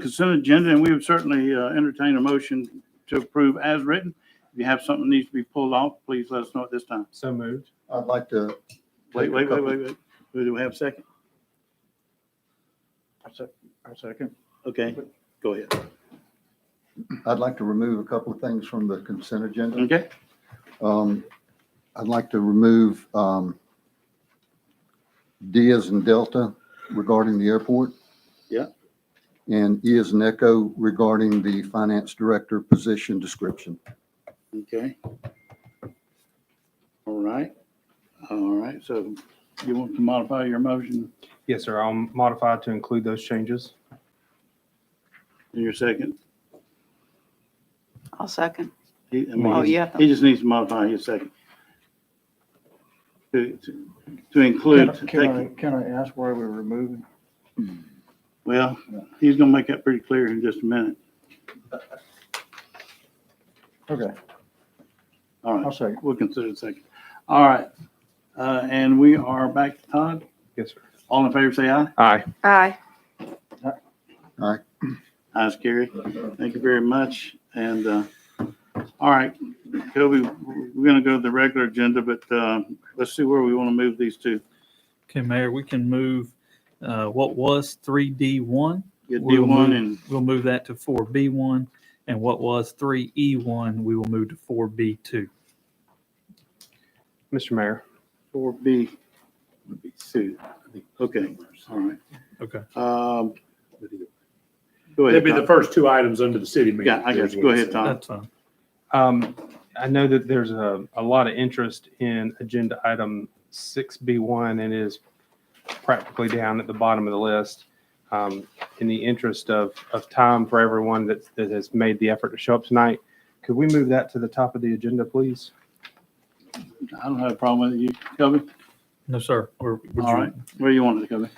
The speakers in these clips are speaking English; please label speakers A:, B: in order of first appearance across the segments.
A: consent agenda, and we would certainly uh, entertain a motion to approve as written. If you have something that needs to be pulled off, please let us know at this time.
B: So moved.
C: I'd like to.
A: Wait, wait, wait, wait, wait. Do we have a second? A second. Okay, go ahead.
C: I'd like to remove a couple of things from the consent agenda.
A: Okay,
C: Um, I'd like to remove, um, D as in Delta regarding the airport.
A: Yeah.
C: And E as in Echo regarding the finance director position description.
A: okay. All right, all right, so you want to modify your motion
B: Yes, sir. I'll modify to include those changes.
A: in your second?
D: I'll second.
A: He- I mean,
D: Oh,
A: he's-
D: yeah.
A: He just needs to modify his second. To, to- to include,
E: Can I- Can I,
A: taking-
E: can I ask why we're removing?
A: well, he's gonna make that pretty clear in just a minute.
E: Okay,
A: All
E: I'll
A: right,
E: second.
A: we'll consider it second. All right, uh, and we are back to Todd.
B: Yes, sir.
A: All in favor, say aye.
B: Aye.
D: Aye.
A: Ayes, carry. Thank you very much. And, uh, all right, Kobe, we're gonna go to the regular agenda, but, uh, let's see where we wanna move these to.
F: Okay, Mayor, we can move uh, what was 3D1.
A: Get D
F: We'll
A: one
F: move-
A: and,
F: We'll move that to 4B1. And what was 3E1, we will move to 4B2.
B: Mr. Mayor,
A: Four B, two, okay, all right.
F: Okay.
A: Um, Go ahead,
G: That'd be the
A: Tom.
G: first two items under the city manager.
A: Yeah, I got you. Go ahead, Tom.
F: That's fine.
B: um, I know that there's a, a lot of interest in agenda item 6B1 and it is practically down at the bottom of the list. Um, in the interest of, of time for everyone that, that has made the effort to show up tonight, could we move that to the top of the agenda, please?
A: I don't have a problem with it. You, Kobe,
F: No, sir. Or would you-
A: All right. where you want it, Kobe?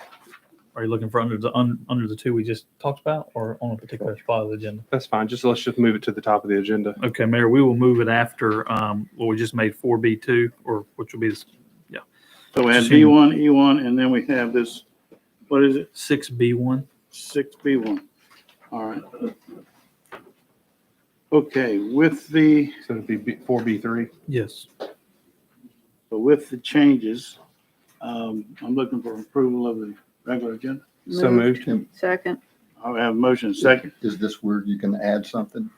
F: Are you looking for under the, un- under the two we just talked about or on a particular spot of the agenda?
B: That's fine. Just let's just move it to the top of the agenda.
F: Okay, Mayor, we will move it after um, what we just made 4B2, or which will be this
A: So we had
F: Sure.
A: B one, E one, and then we have this, what is it,
F: 6B1.
A: six B one? All right. Okay, with the,
B: So it'd be B- 4B3.
F: Yes.
A: with the changes, um, I'm looking for approval of the regular agenda.
B: So
D: Moved.
B: moved.
D: Second.
A: I have a motion second,
C: Is this where you can add something?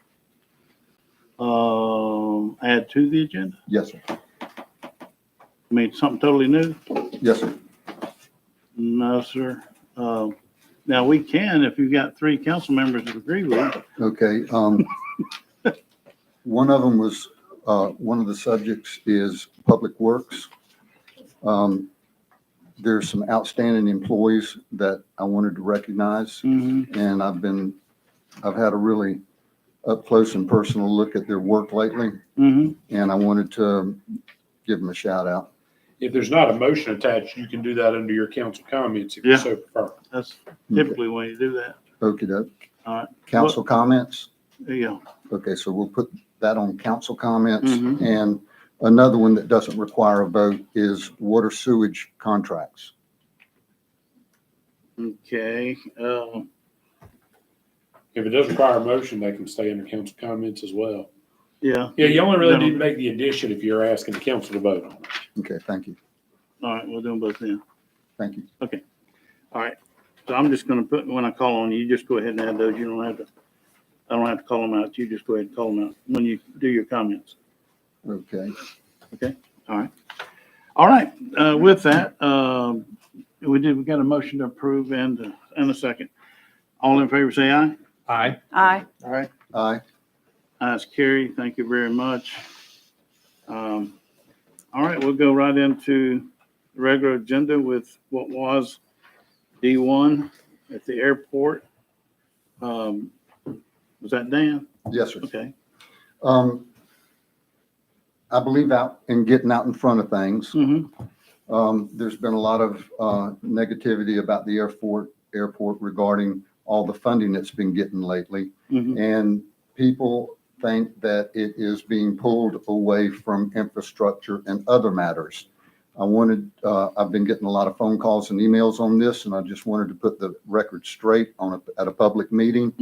A: um, add to the agenda.
C: Yes, sir.
A: I mean, something totally new.
C: Yes, sir.
A: No, sir. Um, Now, we can, if you've got three council members that agree with it.
C: Okay, um, one of them was, uh, one of the subjects is Public Works. Um, there's some outstanding employees that I wanted to recognize,
G: Mm-hmm.
C: and I've been, I've had a really up close and personal look at their work lately,
G: Mm-hmm.
A: Mhm.
C: and I wanted to give them a shout out.
G: If there's not a motion attached, you can do that under your council comments if
A: Yeah.
G: you so prefer.
A: That's typically when you do that.
C: Okey doke.
A: All right.
C: Council comments?
A: There you go.
C: Okay, so we'll put that on council comments.
A: Mhm.
C: And another one that doesn't require a vote is water sewage contracts.
A: Okay, um,
G: If it does require a motion, they can stay under council comments as well.
A: yeah.
G: Yeah, you only really
A: No.
G: need to make the addition if you're asking the council to vote on it.
C: Okay, thank you,
A: All right, we'll do them both then.
C: thank you.
A: All right. So I'm just gonna put, when I call on you, you just go ahead and add those. You don't have to, I don't have to call them out. You just go ahead and call them out when you do your comments.
C: Okay,
A: All right, uh, with that, um, we did, we got a motion to approve and, and a second. All in favor, say aye.
B: Aye.
D: Aye.
A: All right.
C: aye,
A: Ayes, carry. Thank you very much. Um, All right, we'll go right into the regular agenda with what was D1 at the airport. Um, Was that Dan?
C: yes, sir.
A: Okay.
C: Um, I believe out in getting out in front of things.
A: Mm-hmm.
C: Um, there's been a lot of, uh, negativity about the airport, airport regarding all the funding that's been getting lately.
A: Mm-hmm.
C: And people think that it is being pulled away from infrastructure and other matters. I wanted, uh, I've been getting a lot of phone calls and emails on this, and I just wanted to put the record straight on, a- at a public meeting.